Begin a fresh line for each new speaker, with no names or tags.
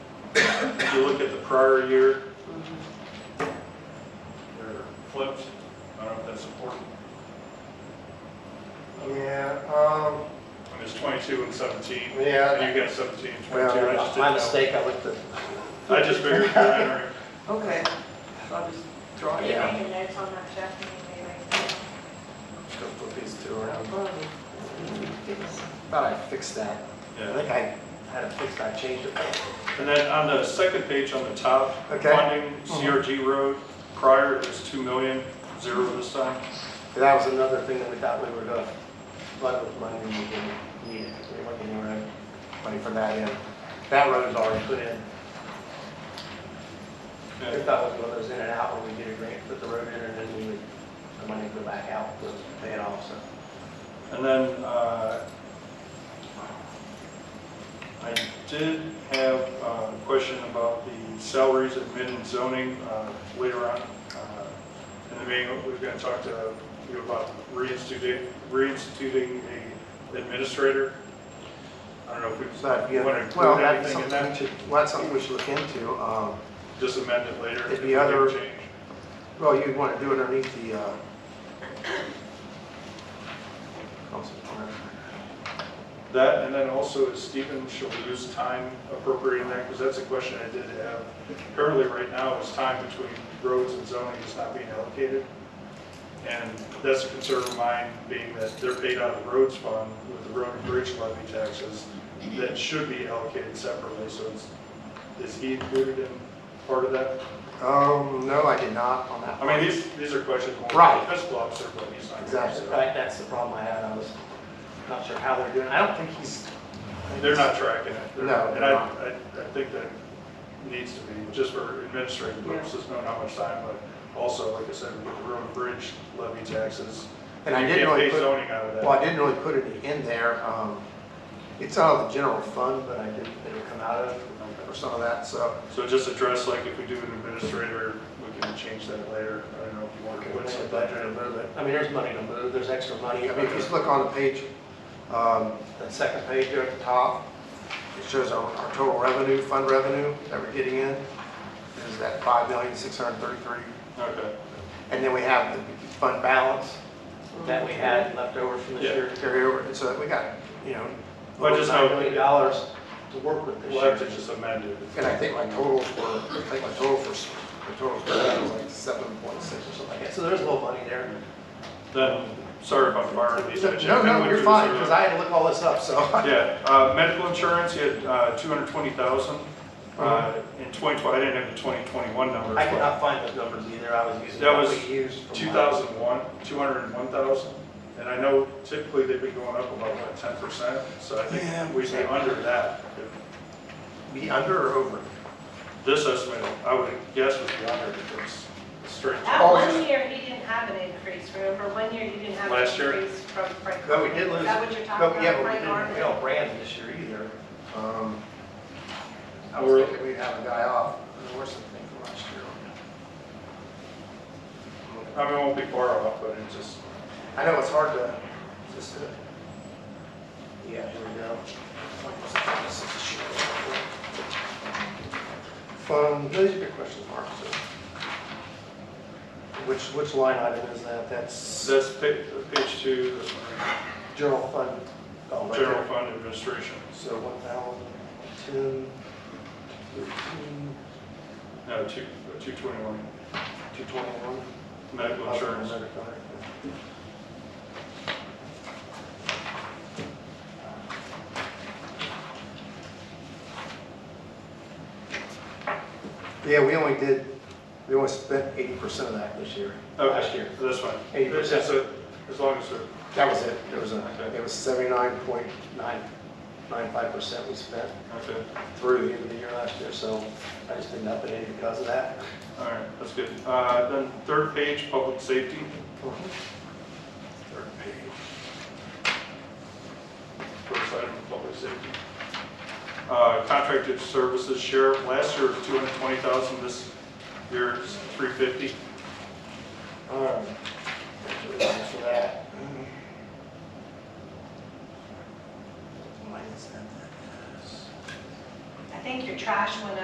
if you look at the prior year,
Mm-hmm.
they're flipped. I don't know if that's important.
Yeah, um,
And it's 22 and 17.
Yeah.
And you got 17 and 22. I just
well,
didn't
my
know.
mistake, I looked at,
I just figured, you're entering.
Okay, so I'll just draw it
Yeah.
out.
Making notes on that, Jeff, and maybe.
I'm just gonna put these two around.
Yes.
Thought I fixed that. I
Yeah.
think I had it fixed, I changed it.
And then on the second page on the top,
Okay. Mm-hmm.
funding CRG road, prior it was 2 million, zero this time.
And That was another thing that we thought we were gonna flood with money, we didn't need it, we weren't getting any money for that in. That road's already put in. We
Okay.
thought it was one of those in and out where we get a grant, put the road in, and then we would, the money would go back out, we'll pay it off, so.
And then, uh, I did have uh, a question about the salaries, admin and zoning uh, later on. Uh, In the meeting, we're going to talk to you about reinstituting, reinstituting a administrator. I don't know if
So that'd be
we
a-
want to
well,
include
that's
anything in
something we
that,
should, well, that's something we should look into. Um,
just amend it later.
It'd
if
be
we
other-
change.
Well, you'd want to do it underneath the, uh, council plan.
That, and then also is Stephen shall lose time appropriating that, because that's a question I did have. Currently, right now, is time between roads and zoning is not being allocated. And that's a concern of mine, being that they're paid out of the roads fund with the road and bridge levy taxes that should be allocated separately, so is, is he included in part of that?
Um, no, I did not on that.
I mean, these, these are questions more for
Right.
the fiscal officer, but he's not. here,
Exactly,
so
right, that's the problem I had, I was not sure how they're doing, I don't think he's.
They're not tracking it. They're-
No,
And
they're
I,
not.
I, I think that needs to be, just for administrative
Yeah.
purposes, knowing how much time, but also, like I said, with the road and bridge levy taxes.
And I
you
didn't
can't
really
pay
put,
zoning out of
well, I
that.
didn't really put any in there, um, it's out of the general fund, but I didn't, it'll come out of, or some of that, so.
So just address, like, if we do an administrator, we can change that later. I don't know if you want to put some budget in.
I mean, there's money to move, there's extra money. I mean, if you just look on the page, um, that second page there at the top, it shows our, our total revenue, fund revenue that we're getting in, is that five million, six hundred and thirty-three.
Okay,
And then we have the fund balance that we had left over from this
Yeah.
year to carry over, and so that we got, you know,
Well, I
over
just
nine
know-
million dollars to work with this
we'll have to
year.
just amend it.
And I think my totals were, I think my total for, s- my total for that was like seven point six or something like that, so there's a little money there.
Then, sorry if I'm firing these. at you.
No,
I
no,
went
you're
through
fine,
this
because
earlier.
I had to look all this up, so.
Yeah, uh, medical insurance, you had, uh, two hundred twenty thousand. Uh, in twenty twenty, I didn't have the twenty twenty-one number.
Mm-hmm. I could not find those numbers either, I was using
That
what
was
we used. from
2001, 201,000. And I know typically they've been going up about, what, 10%? So I
Yeah.
think we'd be under that.
last- Be under or over?
This estimate, I would guess would be under because it's straight.
That one year, he didn't have an increase, remember? One year, you didnn't have an
Last year?
increase from Frank.
But we did
Is
lose.
that what you're talking
but-
about?
Yeah, but we
Frank
didn't
Martin?
fail Brandon this year either. Um, I
We're-
was thinking we'd have a guy off, there were some things from last year.
I mean, it won't be far off, but it's just,
I know it's hard to, just to. Yeah, here we go. Um, those are good questions, Mark, so. Which, which line item is that? That's
that's pa- page two, this one,
general fund. oh, right there.
general fund administration.
So one thousand, ten, thirteen,
No, two- 221,
two twenty-one.
medical insurance.
Yeah, we only did, we only spent eighty percent of that this year. Last year.
Okay, This one.
Eighty percent.
As long as we're
That was it. It was, a-
Okay.
it was seventy-nine point nine, nine five percent we spent
okay.
through the end of the year last year, so I just didn't up it any because of that.
All right, that's good. Uh, Then third page, public safety. Third page. First item, public safety. Uh, Contracted services sheriff, last year was 220,000, this year it's 350.
Um, for that. Minus that.
I think your trash went up.